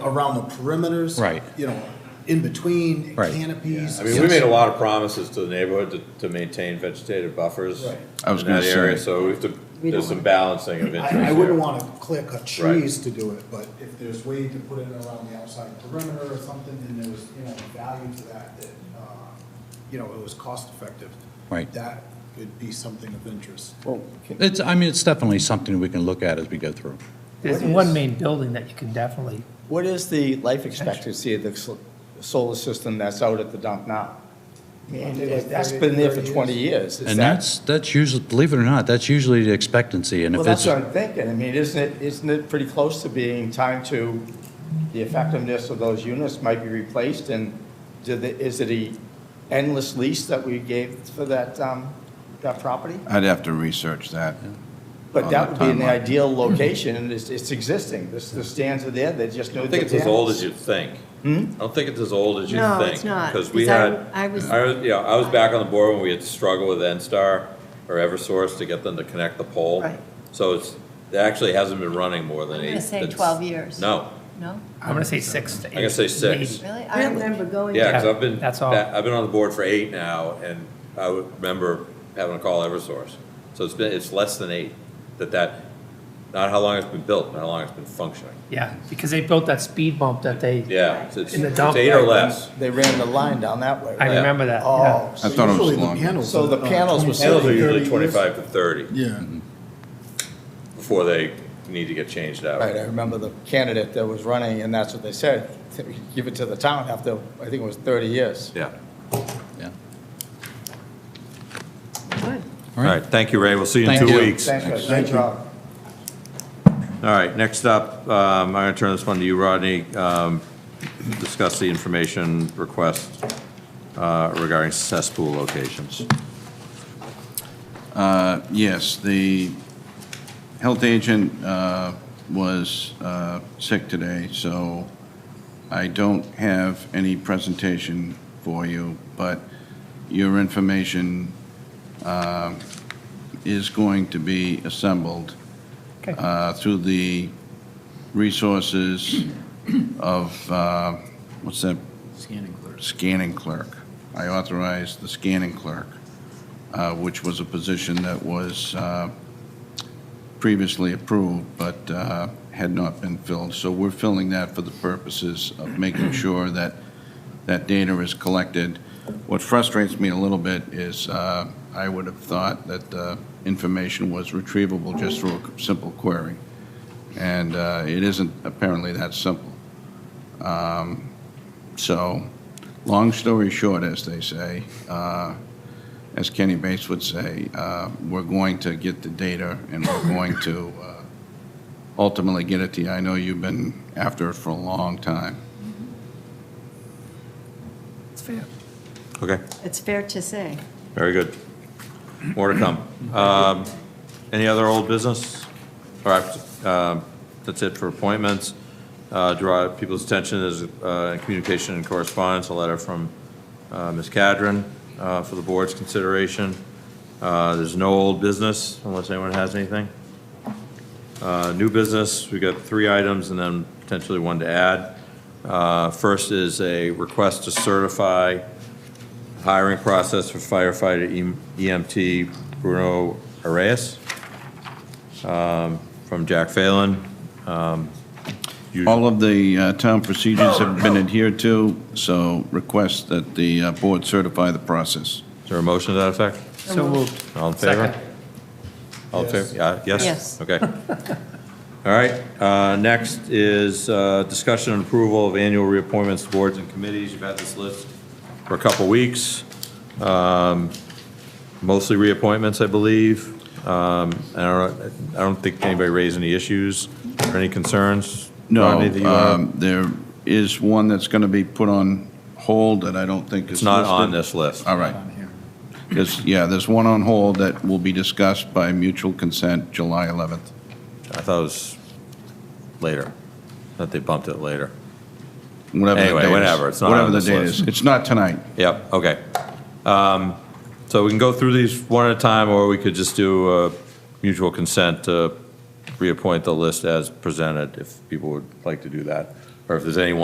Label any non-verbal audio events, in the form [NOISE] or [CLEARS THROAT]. around the perimeters. Right. You know, in between Right. canopies. I mean, we made a lot of promises to the neighborhood to, to maintain vegetative buffers. Right. I was in gonna that area, say. So we have to, there's some balancing of interest I, I wouldn't there. want to clear cut trees to do it, but if there's way to put it around the outside perimeter or something, then there's, you know, value to that, that, uh, you know, it was cost effective. Right. That could be something of interest. It's, I mean, it's definitely something we can look at as we go through. There's What is- one main building that you can definitely, What is the life expectancy of the sol- solar system that's out at the dump now? I mean, They like That's 30 been there for 30 20 years. years. Is And that- that's, that's usually, believe it or not, that's usually the expectancy, and Well, if that's it's, what I'm thinking. I mean, isn't it, isn't it pretty close to being time to, the effectiveness of those units might be replaced? And did, the- is it a endless lease that we gave for that, um, that property? I'd have to research that. But On that that would be in the [CLEARS THROAT] timeline. ideal location, and it's, it's existing. The the stands are there, they just know. I think it's as old as you think. Hmm? I don't think it's as old as you think. No, it's not, Because we because I- had, I I was, was- yeah, I was back on the board when we had struggled with N-Star or Eversource to get them to connect the pole. Right. So it's, it actually hasn't been running more than I'm eight. gonna say it's- 12 years. No, No? I'm going to say six to eight. I'm gonna say six. maybe. Really? I remember going. Yeah, because Yeah, I've been, that's all. I've been on the board for eight now, and I would remember having to call Eversource. So it's been, it's less than eight, that that, not how long it's been built, not how long it's been functioning. Yeah, because they built that speed bump that they, Yeah, it's, it's In the it's dump, eight or right, less. They ran the line down that way, I right? yeah. remember that, yeah. Oh, I thought it Usually was the longer. panels So are, the uh, panels were 25, Panels are usually 30 years. twenty-five to thirty Yeah. before they need to get changed out. right, I remember the candidate that was running, and that's what they said, give it to the town after, I think it was 30 years. Yeah. yeah. Good. All right, thank you, Ray. We'll see you in Thank two you. weeks. All Thanks, guys. Great job. right, next up, um, I'm going to turn this one to you, Rodney. Um, Discuss the information request uh, regarding cesspool locations. Uh, Yes, the health agent uh, was uh, sick today, so I don't have any presentation for you, but your information um, is going to be assembled Okay. uh, through the resources of, uh, what's that? Scanning clerk. I authorized the scanning clerk, uh, which was a position that was uh, previously approved but uh, had not been filled. So we're filling that for the purposes of making sure that that data is collected. What frustrates me a little bit is uh, I would have thought that the information was retrievable just through a simple query, and uh, it isn't apparently that simple. Um, So, long story short, as they say, uh, as Kenny Bates would say, uh, we're going to get the data and we're going to uh, ultimately get it to you. I know you've been after it for a long time. It's fair. Okay. It's fair to say. Very good. More to come. Um, Any other old business? All right, um, that's it for appointments. Uh, Draw people's attention is uh, communication and correspondence, a letter from uh, Ms. Cadron uh, for the board's consideration. Uh, There's no old business unless anyone has anything. Uh, New business, we got three items and then potentially one to add. Uh, First is a request to certify hiring process for firefighter E- EMT Bruno Arias um, from Jack Phelan. All of the uh, town procedures have been adhered to, so request that the uh, board certify the process. Is there a motion to that effect? So moved. All in favor? Second. All in favor? Yeah, Yes? Yes. Okay. All right, uh, next is uh, discussion and approval of annual reappointments to boards and committees. You've had this list for a couple weeks. Um, Mostly reappointments, I believe. Um, I don't, I don't think anybody raised any issues or any concerns. No, Rodney, that you wanna- um, there is one that's going to be put on hold that I don't think is It's not on listed. this list. All right. There's, yeah, there's one on hold that will be discussed by mutual consent July 11th. I thought it was later, that they bumped it later. Whatever the Anyway, date is. whatever, it's not on Whatever the this date list. is. It's not tonight. Yep, okay. Um, So we can go through these one at a time, or we could just do uh, mutual consent to reappoint the list as presented, if people would like to do that. or if there's anyone